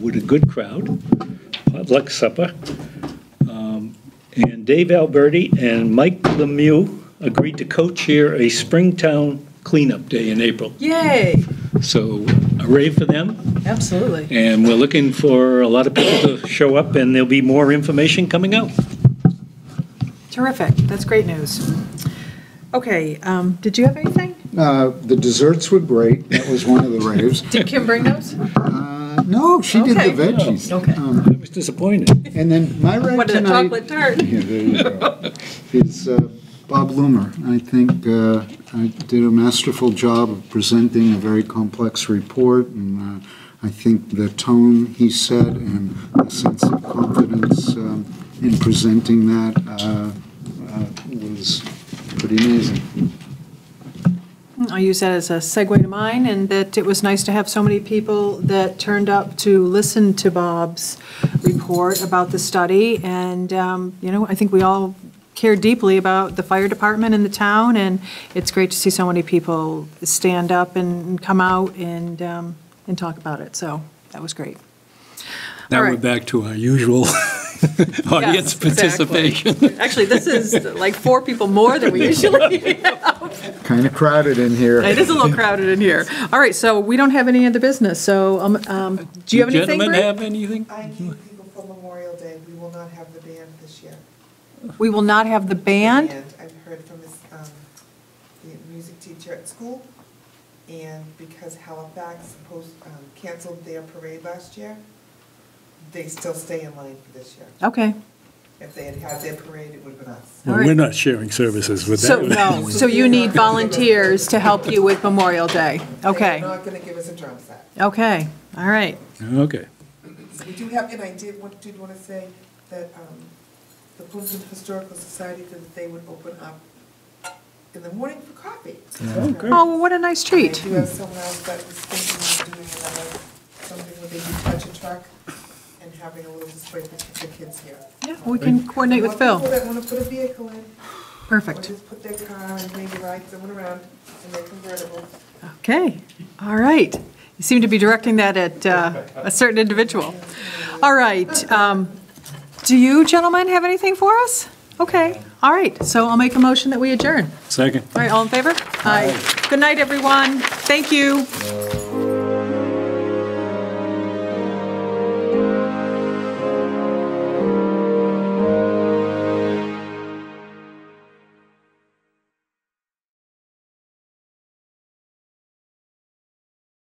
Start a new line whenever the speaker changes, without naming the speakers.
with a good crowd, potluck supper. Um, And Dave Alberti and Mike Lemieux agreed to co-chair a Springtown Cleanup Day in April.
Yay,
So a rave for them,
absolutely.
and we're looking for a lot of people to show up, and there'll be more information coming out.
Terrific, that's great news. Okay, um, did you have anything?
Uh, The desserts were great. That was one of the raves.
Did Kim bring those?
Uh, No, she did the
Okay. Oh,
veggies.
Okay.
Um,
I was disappointed.
And then my rave
What is it,
tonight.
chocolate tart?
Yeah, there you go. Is uh, Bob Loomer. I think uh, I did a masterful job of presenting a very complex report, and uh, I think the tone he set and the sense of confidence um, in presenting that uh, uh, was pretty amazing.
I'll use that as a segue to mine, and that it was nice to have so many people that turned up to listen to Bob's report about the study, and, um, you know, I think we all care deeply about the fire department in the town, and it's great to see so many people stand up and come out and, um, and talk about it, so that was great.
Now
All
we're
right.
back to our usual audience
Yes, exactly.
participation.
Actually, this is like four people more than we usually have.
Kind of crowded in here.
It is a little crowded in here. All right, so we don't have any other business, so um, um, do you have anything?
Gentlemen
Bree?
have anything?
I need people for Memorial Day. We will not have the band this year.
We will not have the
The
band.
I've heard from his, um, the music teacher at school, and because Halifax post, um, canceled their parade last year, they still stay in line for this year.
Okay.
If they had had their parade, it would have been us.
All
Well,
right.
We're not sharing services with
So,
that.
no, so you need volunteers to help you with Memorial Day.
They're
Okay,
not gonna give us a drum set.
okay, all right.
Okay.
We do have, and I did, want did wanna say that, um, the Plimpton Historical Society, that they would open up in the morning for coffee.
Oh, great.
Oh, well, what a nice treat.
I do have someone else that was thinking of doing another, something where they do touch a truck and having a little display for the kids here.
Yeah, we can coordinate with
People
Phil.
that want to put a vehicle in, or
Perfect.
just put their car and maybe ride someone around in their convertible.
Okay, all right. You seem to be directing that at uh, a certain individual. All right. um, Do you gentlemen have anything for us? Okay, all right, so I'll make a motion that we adjourn.
Second.
All right, all in favor? Aye. Good night, everyone. Thank you.